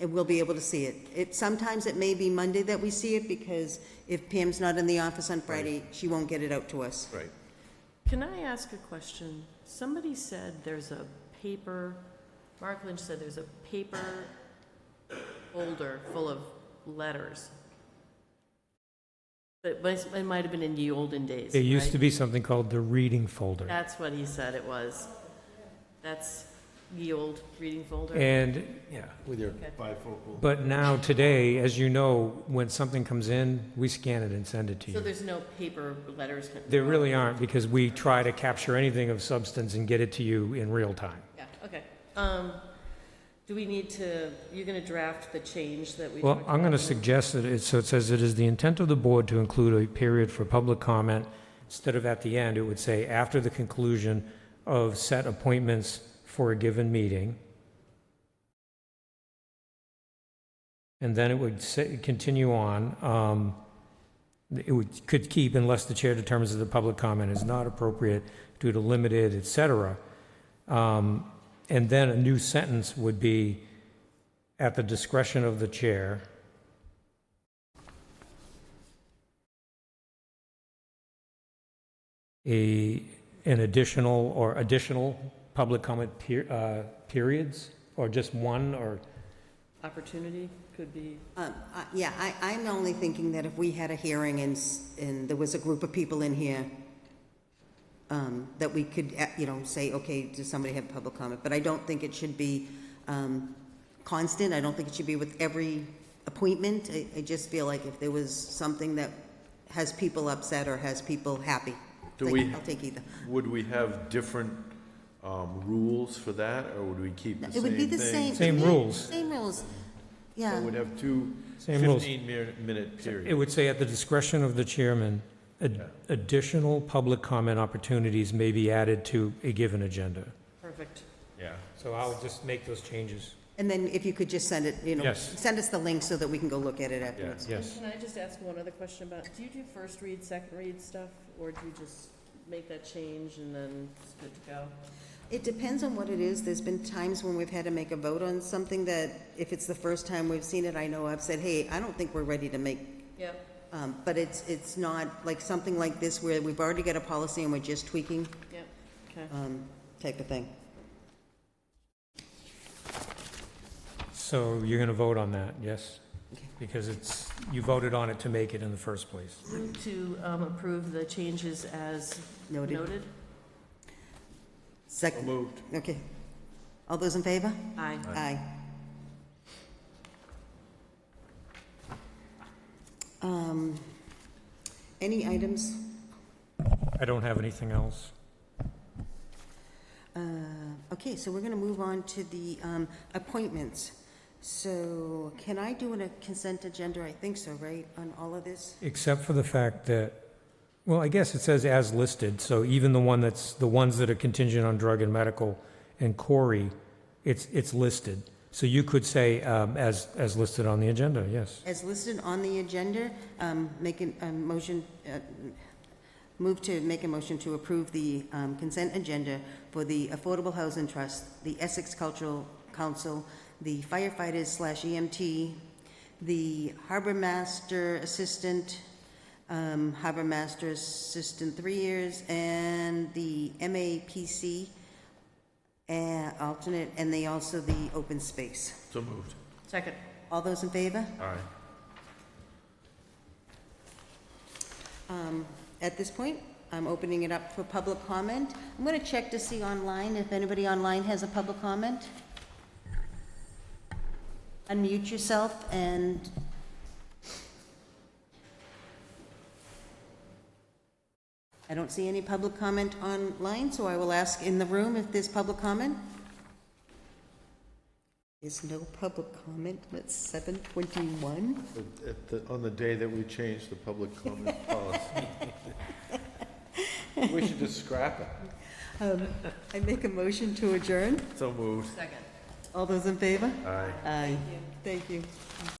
and we'll be able to see it. It, sometimes it may be Monday that we see it, because if Pam's not in the office on Friday, she won't get it out to us. Right. Can I ask a question? Somebody said there's a paper, Mark Lynch said there's a paper folder full of letters. But but it might have been in the olden days, It used right? to be something called the reading folder. That's what he said it was. That's the old reading folder. And, yeah, With your bifocal. but now, today, as you know, when something comes in, we scan it and send it to So you. there's no paper letters? There really aren't, because we try to capture anything of substance and get it to you in real time. Yeah, okay. Um, do we need to, you're gonna draft the change that we Well, talked I'm going to about? suggest that it, so it says, "It is the intent of the board to include a period for public comment." Instead of at the end, it would say, "After the conclusion of set appointments for a given meeting." And then it would say, continue on, um, it would, could keep unless the chair determines that the public comment is not appropriate due to limited, et cetera. Um, And then a new sentence would be, "At the discretion of the chair." a, an additional or additional public comment per, uh, periods, or just one, or, Opportunity could be, Um, I- Yeah, I, I'm only thinking that if we had a hearing and, s- and there was a group of people in here, um, that we could, eh, you know, say, okay, does somebody have public comment? But I don't think it should be um, constant, I don't think it should be with every appointment. I, I just feel like if there was something that has people upset or has people happy, Do like, we- I'll take either. Would we have different um, rules for that, or would we keep the same It thing? would be the same. Same rules. Same rules, So yeah. We'd have two Same rules. 15-minute it periods. would say at the discretion of the chairman, ad- additional public comment opportunities may be added to a given agenda. perfect. Yeah. So I'll just make those changes. And then if you could just send it, you know, Yes. send us the link so that we can go look at it afterwards. Yes. Can I just ask one other question about, do you do first read, second read stuff, or do you just make that change and then it's good to go? It depends on what it is. There's been times when we've had to make a vote on something that, if it's the first time we've seen it, I know I've said, hey, I don't think we're ready to make, Yeah. um, but it's, it's not like something like this where we've already got a policy and we're just tweaking, Yep, okay. um, type of thing. So you're going to vote on that, yes? Okay. Because it's, you voted on it to make it in the first place. Move to um, approve the changes as Noted. noted? So Second, moved. okay. All those in favor? Aye. Aye. Um, Any items? I don't have anything else. Uh, Okay, so we're going to move on to the um, appointments. So can I do an- a consent agenda? I think so, right, on all of this? Except for the fact that, well, I guess it says as listed, so even the one that's, the ones that are contingent on drug and medical and Corey, it's, it's listed. So you could say um, as, as listed on the agenda, yes. As listed on the agenda, um, make an- a motion, uh, move to make a motion to approve the um, consent agenda for the Affordable Housing Trust, the Essex Cultural Council, the firefighters slash EMT, the Harbor Master Assistant, um, Harbor Master Assistant three years, and the MAPC uh, alternate, and they also the open space. So moved. Second. All those in favor? Aye. Um, At this point, I'm opening it up for public comment. I'm going to check to see online if anybody online has a public comment. Unmute yourself and... I don't see any public comment online, so I will ask in the room if there's public comment. There's no public comment. It's 7:21. But at the- On the day that we changed the public comment policy. We should just scrap it. Um, I make a motion to adjourn. So moved. Second. All those in favor? Aye. Aye. Thank you.